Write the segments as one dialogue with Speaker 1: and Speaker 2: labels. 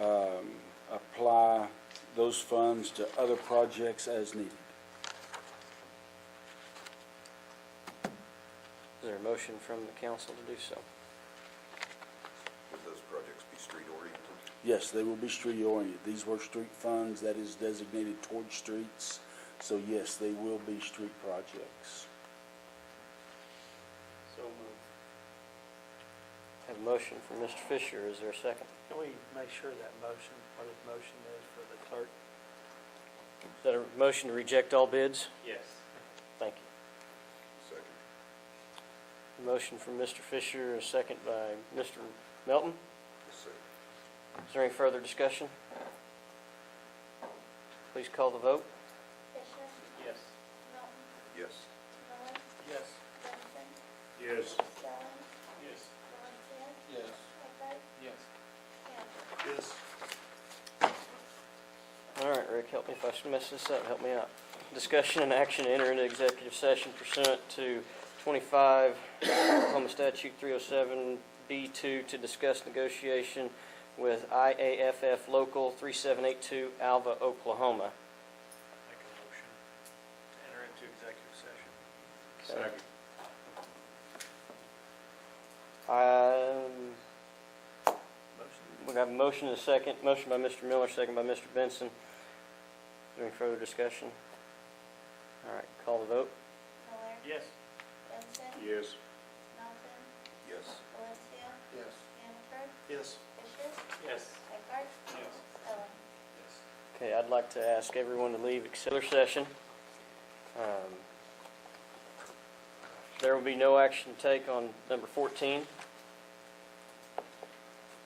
Speaker 1: um, those funds to other projects as needed.
Speaker 2: Is there a motion from the council to do so?
Speaker 3: Would those projects be street oriented?
Speaker 1: Yes, they will be street oriented. These were street funds that is designated towards streets, so yes, they will be street projects.
Speaker 4: So moved.
Speaker 2: Have a motion from Mr. Fisher, is there a second?
Speaker 4: Can we make sure that motion, what his motion is for the clerk?
Speaker 2: Is that a motion to reject all bids?
Speaker 4: Yes.
Speaker 2: Thank you.
Speaker 3: Second.
Speaker 2: A motion from Mr. Fisher, a second by Mr. Melton.
Speaker 3: Yes, sir.
Speaker 2: Is there any further discussion? Please call the vote.
Speaker 5: Fisher,
Speaker 4: Yes.
Speaker 5: Melton,
Speaker 3: Yes.
Speaker 5: Miller,
Speaker 4: Yes.
Speaker 5: Johnson,
Speaker 3: Yes.
Speaker 5: Stelling,
Speaker 4: Yes.
Speaker 5: Valencia,
Speaker 4: Yes.
Speaker 5: Eckhart,
Speaker 4: Yes.
Speaker 5: Campbell.
Speaker 3: Yes.
Speaker 2: All right, Rick, help me if I mess this up, help me out. Discussion and action to enter into executive session pursuant to 25 Oklahoma Statute 307B2 to discuss negotiation with IAFF Local 3782 Alva, Oklahoma.
Speaker 4: Make a motion. Enter into executive session.
Speaker 2: Second. Um,
Speaker 4: Motion?
Speaker 2: We have a motion and a second, motion by Mr. Miller, second by Mr. Benson. Is there any further discussion? All right, call the vote.
Speaker 5: Miller,
Speaker 4: Yes.
Speaker 5: Johnson,
Speaker 3: Yes.
Speaker 5: Melton,
Speaker 3: Yes.
Speaker 5: Valencia,
Speaker 4: Yes.
Speaker 5: Hannaford,
Speaker 4: Yes.
Speaker 5: Fisher,
Speaker 4: Yes.
Speaker 5: Eckhart,
Speaker 4: Yes.
Speaker 5: Stelling.
Speaker 4: Yes.
Speaker 2: Okay, I'd like to ask everyone to leave except for session. Um, There will be no action to take on number 14.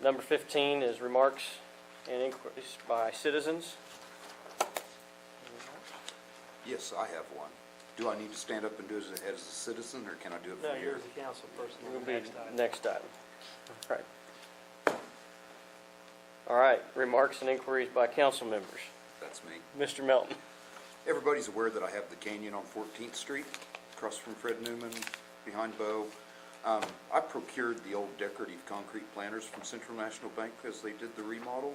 Speaker 2: Number 15 is remarks and inquiries by citizens.
Speaker 3: Yes, I have one. Do I need to stand up and do it as a citizen, or can I do it
Speaker 4: No,
Speaker 3: from
Speaker 4: you're
Speaker 3: here?
Speaker 4: the council person
Speaker 2: Will
Speaker 4: on
Speaker 2: be
Speaker 4: the next item.
Speaker 2: next item. All right. All right, remarks and inquiries by council members.
Speaker 3: That's me.
Speaker 2: Mr. Melton.
Speaker 3: Everybody's aware that I have the canyon on 14th Street, across from Fred Newman, behind Bo. Um, I procured the old decorative concrete planters from Central National Bank because they did the remodel,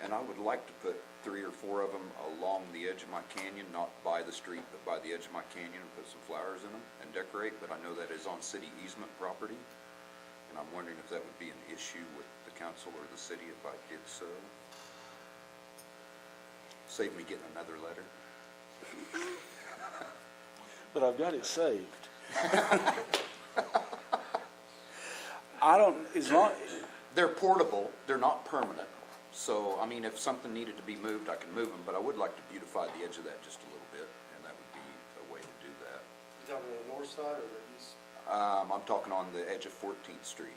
Speaker 3: and I would like to put three or four of them along the edge of my canyon, not by the street, but by the edge of my canyon, and put some flowers in them and decorate, but I know that is on city easement property, and I'm wondering if that would be an issue with the council or the city if I did so. Save me getting another letter.
Speaker 1: But I've got it saved. I don't, as long,
Speaker 3: They're portable, they're not permanent. So, I mean, if something needed to be moved, I can move them, but I would like to beautify the edge of that just a little bit, and that would be a way to do that.
Speaker 6: You talking the north side or the east?
Speaker 3: Um, I'm talking on the edge of Fourteenth Street,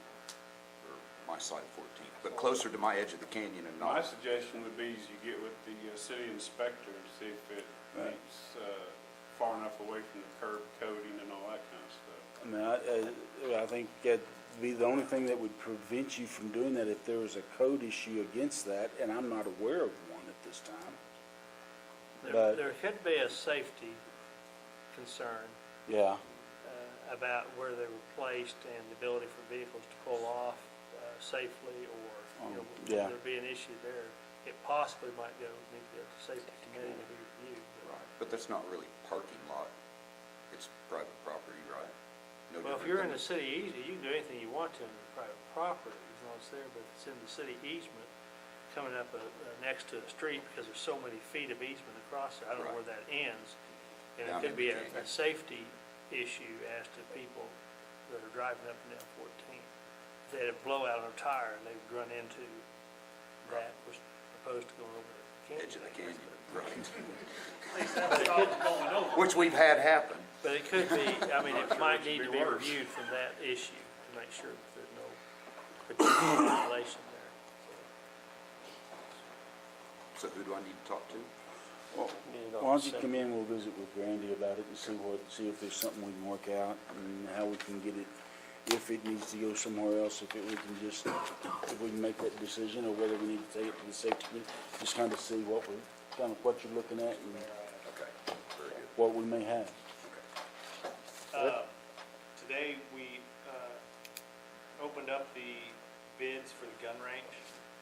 Speaker 3: or my side of Fourteenth, but closer to my edge of the canyon and
Speaker 7: My
Speaker 3: not.
Speaker 7: suggestion would be is you get with the uh, city inspector and see if it
Speaker 1: Right.
Speaker 7: meets uh, far enough away from the curb coding and all that kind of stuff.
Speaker 1: I mean, I, I- I think that'd be the only thing that would prevent you from doing that if there was a code issue against that, and I'm not aware of one at this time.
Speaker 4: There,
Speaker 1: But-
Speaker 4: there could be a safety concern
Speaker 1: Yeah.
Speaker 4: uh, about where they were placed and the ability for vehicles to pull off uh, safely or, you know,
Speaker 1: Um,
Speaker 4: would
Speaker 1: yeah.
Speaker 4: there be an issue there? It possibly might go, need to go to safety committee to be reviewed. but-
Speaker 3: Right, But that's not really parking lot, it's private property, right? No
Speaker 4: Well, if
Speaker 3: different
Speaker 4: you're in
Speaker 3: than-
Speaker 4: the city easement, you can do anything you want to on your private property as long as it's there, but if it's in the city easement, coming up uh, uh, next to a street because there's so many feet of easement across there, I don't know
Speaker 3: Right.
Speaker 4: where that ends. And
Speaker 3: Yeah,
Speaker 4: it
Speaker 3: I'm
Speaker 4: could be a,
Speaker 3: understanding.
Speaker 4: a safety issue as to people that are driving up and down fourteen. If They had a blowout on a tire and they'd run into that was opposed to going over the canyon.
Speaker 3: Edge of the canyon, right,
Speaker 4: going over.
Speaker 3: which we've had happen.
Speaker 4: But it could be, I mean, it might need to be
Speaker 7: Be worse.
Speaker 4: reviewed from that issue to make sure that there's no potential violation there.
Speaker 3: So who do I need to talk to?
Speaker 1: Why don't you come in, we'll visit with Brandy about it and see what, see if there's something we can work out and how we can get it, if it needs to go somewhere else, if it, we can just, if we can make that decision or whether we need to take it to the safety committee, just kind of see what we, kind of what you're looking at and
Speaker 3: Okay, very good,
Speaker 1: what we may have.
Speaker 3: okay.
Speaker 8: Uh, Today, we uh, opened up the bids for the gun range.